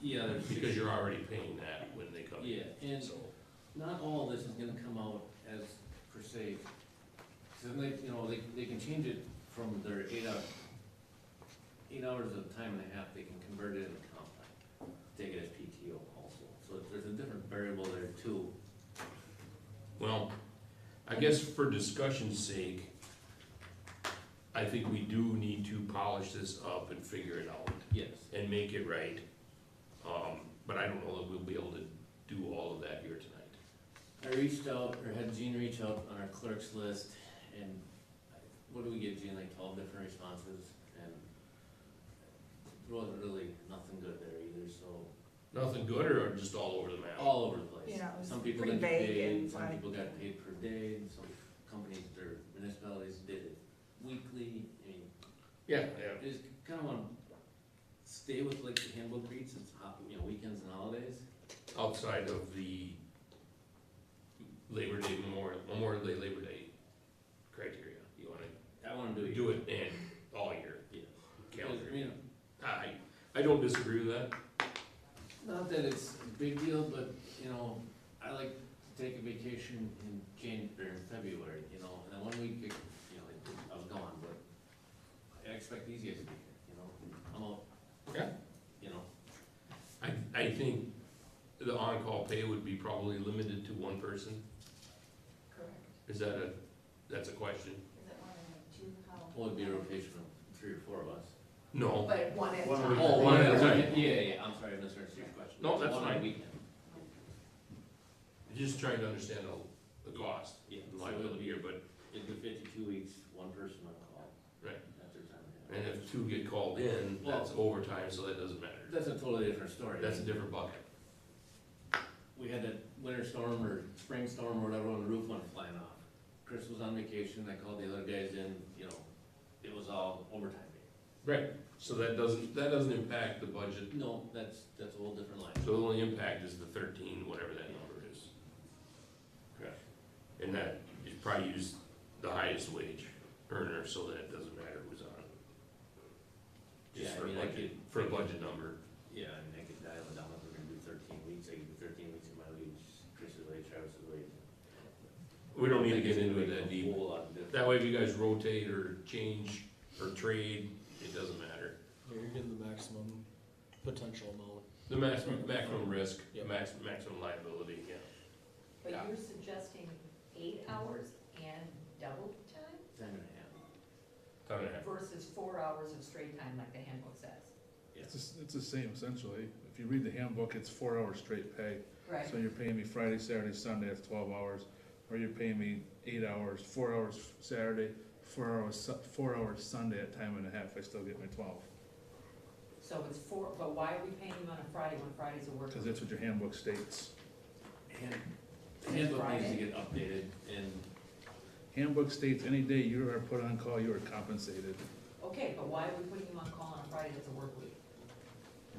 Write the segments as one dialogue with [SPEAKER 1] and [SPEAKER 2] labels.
[SPEAKER 1] Yeah, there's
[SPEAKER 2] because
[SPEAKER 1] six-
[SPEAKER 2] you're already paying that when they come in.
[SPEAKER 1] Yeah, and
[SPEAKER 2] So,
[SPEAKER 1] not all of this is gonna come out as per se. So then they, you know, they, they can change it from their eight hour, eight hours of time and a half, they can convert it into comp time. Take it as PTO also, so there's a different variable there too.
[SPEAKER 2] well, I guess for discussion's sake, I think we do need to polish this up and figure it out
[SPEAKER 1] Yes.
[SPEAKER 2] and make it right. Um, but I don't know that we'll be able to do all of that here tonight.
[SPEAKER 1] I reached out, or had Gene reach out on our clerks list, and I- what do we get, Gene, like twelve different responses, and there wasn't really nothing good there either, so,
[SPEAKER 2] Nothing good or just all over the map?
[SPEAKER 1] all over the place.
[SPEAKER 3] Yeah, it was
[SPEAKER 1] Some people
[SPEAKER 3] pretty
[SPEAKER 1] got
[SPEAKER 3] vague
[SPEAKER 1] paid,
[SPEAKER 3] and
[SPEAKER 1] some
[SPEAKER 3] like-
[SPEAKER 1] people got paid per day, and some companies, their municipalities did it weekly, I mean,
[SPEAKER 2] Yeah, yeah,
[SPEAKER 1] I just kinda wanna stay with like the handbook reads, it's hot, you know, weekends and holidays.
[SPEAKER 2] outside of the Labor Day, Memorial, Memorial Day, Labor Day criteria. You wanna
[SPEAKER 1] I wanna do it.
[SPEAKER 2] do it and all year,
[SPEAKER 1] Yeah.
[SPEAKER 2] calendar.
[SPEAKER 1] I mean,
[SPEAKER 2] I, I don't disagree with that.
[SPEAKER 1] Not that it's a big deal, but, you know, I like to take a vacation in Jan, or in February, you know, and then one week, you know, like, I was gone, but I expect these guys to be here, you know, I'm all,
[SPEAKER 2] Yeah.
[SPEAKER 1] you know,
[SPEAKER 2] I, I think the on-call pay would be probably limited to one person.
[SPEAKER 3] Correct.
[SPEAKER 2] Is that a, that's a question?
[SPEAKER 3] Is it one and two, how?
[SPEAKER 1] well, it'd be a rotation of three or four of us.
[SPEAKER 2] No,
[SPEAKER 3] But one at a
[SPEAKER 4] One
[SPEAKER 3] time.
[SPEAKER 4] at a Oh, one
[SPEAKER 2] at a time.
[SPEAKER 1] Yeah, yeah, yeah, I'm sorry, I misheard your question.
[SPEAKER 2] No, that's
[SPEAKER 1] One on
[SPEAKER 2] fine.
[SPEAKER 1] weekend.
[SPEAKER 2] just trying to understand the, the cost,
[SPEAKER 1] Yeah,
[SPEAKER 2] and
[SPEAKER 1] so it'll
[SPEAKER 2] liability
[SPEAKER 1] be,
[SPEAKER 2] here, but,
[SPEAKER 1] it'll be fifty-two weeks, one person on call.
[SPEAKER 2] Right.
[SPEAKER 1] At their time. and a
[SPEAKER 2] and
[SPEAKER 1] half.
[SPEAKER 2] if two get called in, that's overtime, so that doesn't matter.
[SPEAKER 1] That's a totally different story.
[SPEAKER 2] That's a different bucket.
[SPEAKER 1] we had that winter storm or spring storm or whatever, and the roof went flying off. Chris was on vacation, I called the other guys in, you know, it was all overtime day.
[SPEAKER 2] Right. So that doesn't, that doesn't impact the budget,
[SPEAKER 1] No, that's, that's a whole different line.
[SPEAKER 2] so the only impact is the thirteen, whatever that number is.
[SPEAKER 1] Correct.
[SPEAKER 2] And that, you probably use the highest wage earner, so that it doesn't matter who's on. it.
[SPEAKER 1] Yeah,
[SPEAKER 2] Just
[SPEAKER 1] I
[SPEAKER 2] for a
[SPEAKER 1] mean, I
[SPEAKER 2] budget,
[SPEAKER 1] could.
[SPEAKER 2] for a budget number.
[SPEAKER 1] Yeah, I mean, I could dial it down if we're gonna do thirteen weeks, I could do thirteen weeks of my wage, Chris's wage, Travis's wage.
[SPEAKER 2] We don't need to
[SPEAKER 1] I
[SPEAKER 2] get
[SPEAKER 1] think it's
[SPEAKER 2] into it
[SPEAKER 1] gonna
[SPEAKER 2] that
[SPEAKER 1] make a
[SPEAKER 2] deep.
[SPEAKER 1] whole lot of difference.
[SPEAKER 2] That way if you guys rotate or change or trade, it doesn't matter.
[SPEAKER 4] Yeah, you're getting the maximum potential amount.
[SPEAKER 2] The maximum, maximum risk,
[SPEAKER 4] Yeah.
[SPEAKER 2] max, maximum liability, yeah.
[SPEAKER 5] But
[SPEAKER 2] Yeah.
[SPEAKER 5] you're suggesting eight hours and double time
[SPEAKER 1] Time and a half.
[SPEAKER 2] Time and a half.
[SPEAKER 5] versus four hours of straight time like the handbook says?
[SPEAKER 1] Yeah.
[SPEAKER 6] It's, the s- it's the same essentially. If you read the handbook, it's four hours straight pay.
[SPEAKER 5] Right.
[SPEAKER 6] So you're paying me Friday, Saturday, Sunday, that's twelve hours. Or you're paying me eight hours, four hours Saturday, four hours, Su- four hours Sunday at time and a half, I still get my twelve.
[SPEAKER 5] So it's four, but why are we paying him on a Friday when Friday's a work?
[SPEAKER 6] Cause that's what your handbook states.
[SPEAKER 1] Hand- Handbook needs to
[SPEAKER 5] Friday.
[SPEAKER 1] get updated and
[SPEAKER 6] Handbook states any day you are put on call, you are compensated.
[SPEAKER 5] Okay, but why are we putting him on call on a Friday that's a work week?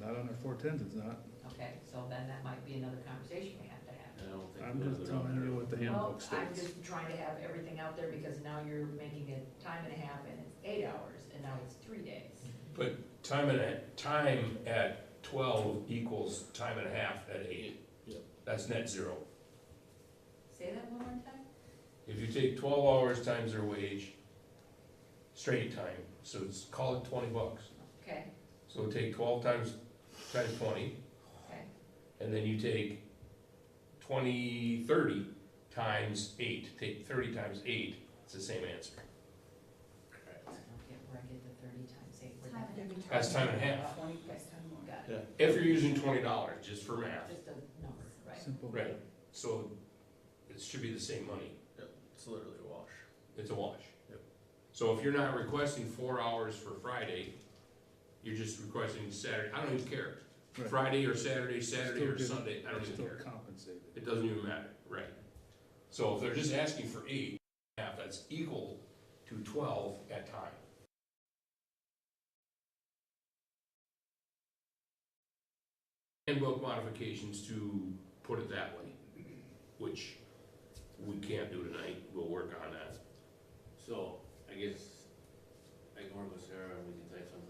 [SPEAKER 6] Not on our four tens, it's not.
[SPEAKER 5] Okay, so then that might be another conversation we have to have.
[SPEAKER 1] I don't think.
[SPEAKER 6] I'm
[SPEAKER 1] we're
[SPEAKER 6] just
[SPEAKER 1] gonna go down
[SPEAKER 6] telling
[SPEAKER 1] that
[SPEAKER 6] you
[SPEAKER 1] road.
[SPEAKER 6] what the
[SPEAKER 5] Well,
[SPEAKER 6] handbook
[SPEAKER 5] I'm
[SPEAKER 6] states.
[SPEAKER 5] just trying to have everything out there because now you're making it time and a half and it's eight hours and now it's three days.
[SPEAKER 2] But time and a, time at twelve equals time and a half at eight.
[SPEAKER 4] Yep.
[SPEAKER 2] That's net zero.
[SPEAKER 5] Say that one more time?
[SPEAKER 2] If you take twelve hours times their wage, straight time, so it's, call it twenty bucks.
[SPEAKER 5] Okay,
[SPEAKER 2] So take twelve times, times twenty,
[SPEAKER 5] okay,
[SPEAKER 2] and then you take twenty, thirty times eight, take thirty times eight, it's the same answer.
[SPEAKER 1] Correct.
[SPEAKER 5] I don't get where I get the thirty times eight. We're
[SPEAKER 3] Time
[SPEAKER 5] not-
[SPEAKER 3] and a half.
[SPEAKER 2] That's time and a half.
[SPEAKER 5] Okay, got it.
[SPEAKER 2] If you're using twenty dollars, just for math,
[SPEAKER 5] Just a number, right?
[SPEAKER 6] Simple.
[SPEAKER 2] Right. so it should be the same money.
[SPEAKER 4] It's literally a wash.
[SPEAKER 2] It's a wash.
[SPEAKER 4] Yep.
[SPEAKER 2] So if you're not requesting four hours for Friday, you're just requesting Saturday, I don't even care.
[SPEAKER 6] Right.
[SPEAKER 2] Friday or Saturday, Saturday or
[SPEAKER 6] Still
[SPEAKER 2] Sunday, I
[SPEAKER 6] You're
[SPEAKER 2] don't even
[SPEAKER 6] still
[SPEAKER 2] care.
[SPEAKER 6] compensated.
[SPEAKER 2] It doesn't even matter, right? So if they're just asking for eight, and a half, that's equal to twelve at time. Handbook modifications to put it that way, which we can't do tonight, we'll work on that.
[SPEAKER 1] So, I guess I can work with Sarah and we can type something